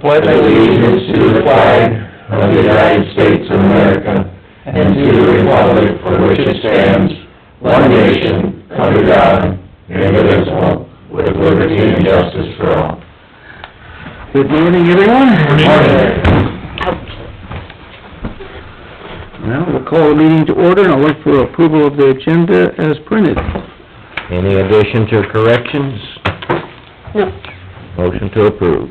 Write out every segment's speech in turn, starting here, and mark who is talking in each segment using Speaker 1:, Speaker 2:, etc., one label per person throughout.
Speaker 1: pledge allegiance to the flag of the United States of America and to the republic for which it stands, one nation, under God, indivisible, with liberty and justice for all.
Speaker 2: Good morning, everyone. Well, we'll call the meeting to order, and I'll look for approval of the agenda as printed.
Speaker 1: Any additions or corrections?
Speaker 2: No.
Speaker 1: Motion to approve.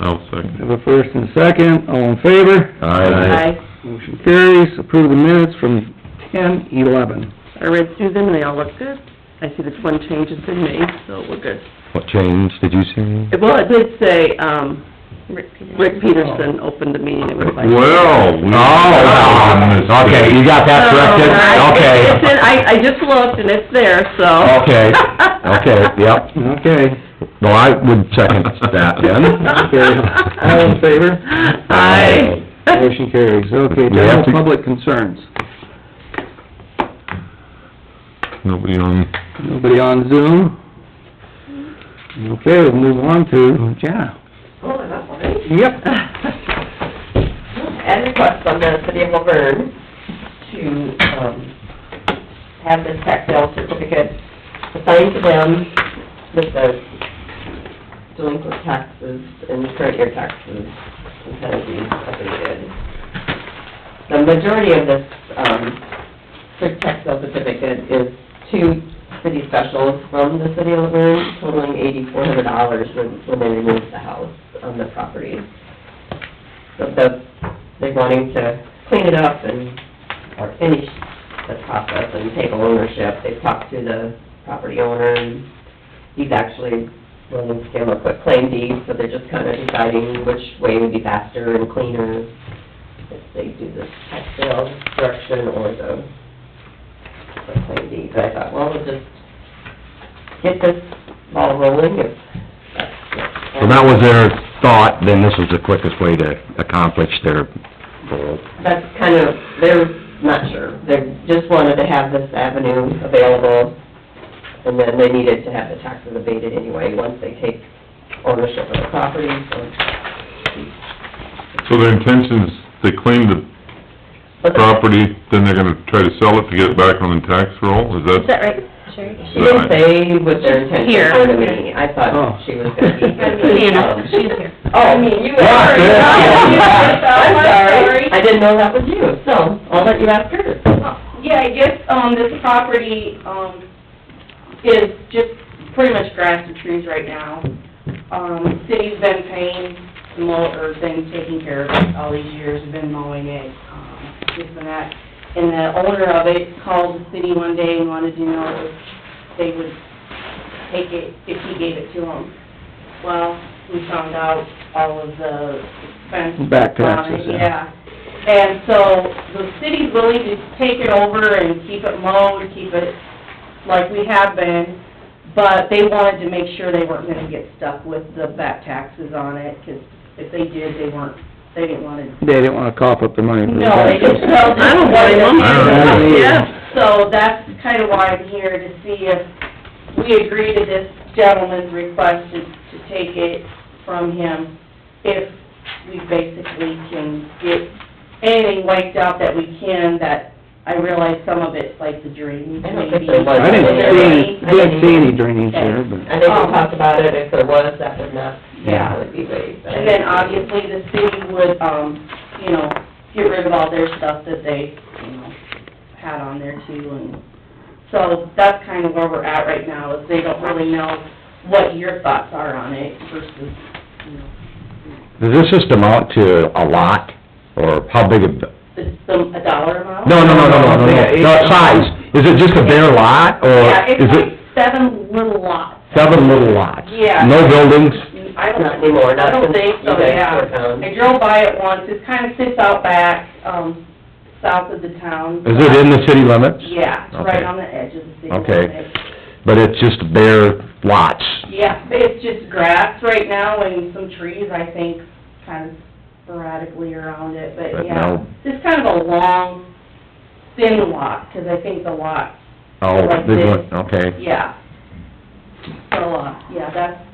Speaker 3: I'll second.
Speaker 2: Have a first and second, all in favor?
Speaker 1: Aye.
Speaker 2: Motion carries, approve the minutes from ten eleven.
Speaker 4: I read through them, and they all look good. I see that one change has been made, so we're good.
Speaker 1: What change did you see?
Speaker 4: Well, it did say, um,
Speaker 5: Rick Peterson.
Speaker 4: Rick Peterson opened the meeting, it was like...
Speaker 3: Well, we...
Speaker 1: Oh, okay, you got that corrected?
Speaker 4: Oh, It-
Speaker 1: Okay.
Speaker 4: it's in- I, I just looked, and it's there, so...
Speaker 1: Okay, okay, yep.
Speaker 2: Okay,
Speaker 1: No, I would second that
Speaker 2: Okay. all in favor?
Speaker 4: Aye.
Speaker 2: Motion carries, okay,
Speaker 1: We have
Speaker 2: general
Speaker 1: to-
Speaker 2: public concerns.
Speaker 3: Nobody on,
Speaker 2: Nobody on Zoom? Okay, we'll move on to, yeah. Yep.
Speaker 4: At request from the city of Laverne to, um, have this tax sale certificate assigned to them with the delinquent taxes and current year taxes and penalties updated. The majority of this, um, cer- tax sale certificate is two city specials from the city of Laverne totaling eighty-four hundred dollars when, when they removed the house on the property. So the, they're wanting to clean it up and, or finish the process and take ownership. They've talked to the property owner and he's actually willing to give a quick claim deed, so they're just kind of deciding which way would be faster and cleaner if they do this tax sale direction or the quick claim deed. But I thought, well, we'll just get this ball rolling if that's. what-
Speaker 1: So that was their thought, then this is the quickest way to accomplish their goal.
Speaker 4: that's kind of, they're not sure. They just wanted to have this avenue available, and then they needed to have the taxes abated anyway, once they take ownership of the property, so.
Speaker 3: so their intentions, they claim the
Speaker 4: but the-
Speaker 3: property, then they're gonna try to sell it to get it back on the tax roll, is
Speaker 5: Is that
Speaker 3: that?
Speaker 5: right, Sherry?
Speaker 4: She didn't say what their intentions
Speaker 5: Here.
Speaker 4: were to me. I
Speaker 2: Oh.
Speaker 4: thought she was gonna be.
Speaker 5: Hannah, she's here.
Speaker 4: Oh, you
Speaker 1: asked her.
Speaker 4: I'm sorry.
Speaker 6: sorry.
Speaker 4: I didn't know that was you, so I'll let you ask her.
Speaker 5: Oh,
Speaker 6: Yeah, I guess, um, this property, um, is just pretty much grass and trees right now. Um, city's been paying the mow, or been taking care of it all these years, been mowing it, um, this and that. And the owner of it called the city one day and wanted to know if they would take it, if he gave it to them. Well, we found out all of the expenses.
Speaker 2: Back taxes, yeah.
Speaker 6: Yeah, and so the city's willing to take it over and keep it mowed, keep it like we have been, but they wanted to make sure they weren't gonna get stuck with the back taxes on it, 'cause if they did, they weren't, they didn't wanna,
Speaker 2: They didn't wanna cough up the money for the
Speaker 6: no, they just,
Speaker 2: taxes.
Speaker 6: well,
Speaker 4: I don't blame them.
Speaker 3: I
Speaker 2: don't either.
Speaker 4: Yeah.
Speaker 6: So that's kinda why I'm here, to see if we agree to this gentleman's request to, to take it from him, if we basically can get anything wiped out that we can, that, I realize some of it's like the drains,
Speaker 4: I don't think there
Speaker 6: maybe.
Speaker 4: was.
Speaker 2: I didn't see any,
Speaker 4: I
Speaker 2: didn't see any drainage there, but,
Speaker 4: I think
Speaker 6: Um,
Speaker 4: we talked about it, if there was, that would not, yeah,
Speaker 2: Yeah.
Speaker 4: would be waived.
Speaker 6: And then obviously the city would, um, you know, get rid of all their stuff that they, you know, had on there too, and so that's kind of where we're at right now, is they don't really know what your thoughts are on it versus, you know,
Speaker 1: Does this just amount to a lot, or how big a,
Speaker 6: the, the, a dollar amount.
Speaker 1: no, no, no, no, no, no, no, the size? Is it just a bare lot,
Speaker 6: Yeah,
Speaker 1: or
Speaker 6: it's
Speaker 1: is
Speaker 6: like
Speaker 1: it
Speaker 6: seven little lots.
Speaker 1: seven little lots?
Speaker 6: Yeah.
Speaker 1: No buildings?
Speaker 6: I don't,
Speaker 4: Not anymore, not
Speaker 6: I don't
Speaker 4: since
Speaker 6: think
Speaker 4: you
Speaker 6: so,
Speaker 4: guys
Speaker 6: yeah.
Speaker 4: were gone.
Speaker 6: I drove by it once, it kind of sits out back, um, south of the town.
Speaker 1: Is it in the city limits?
Speaker 6: Yeah, it's right
Speaker 1: Okay.
Speaker 6: on the edge of the city.
Speaker 1: Okay.
Speaker 6: limits.
Speaker 1: But it's just bare lots?
Speaker 6: Yeah, but it's just grass right now and some trees, I think, kind of sporadically around it, but
Speaker 1: But
Speaker 6: yeah.
Speaker 1: no-
Speaker 6: It's kind of a long, thin lot, because I think the lot,
Speaker 1: Oh,
Speaker 6: Like
Speaker 1: there's
Speaker 6: this.
Speaker 1: one, okay.
Speaker 6: yeah. So, uh, yeah, that's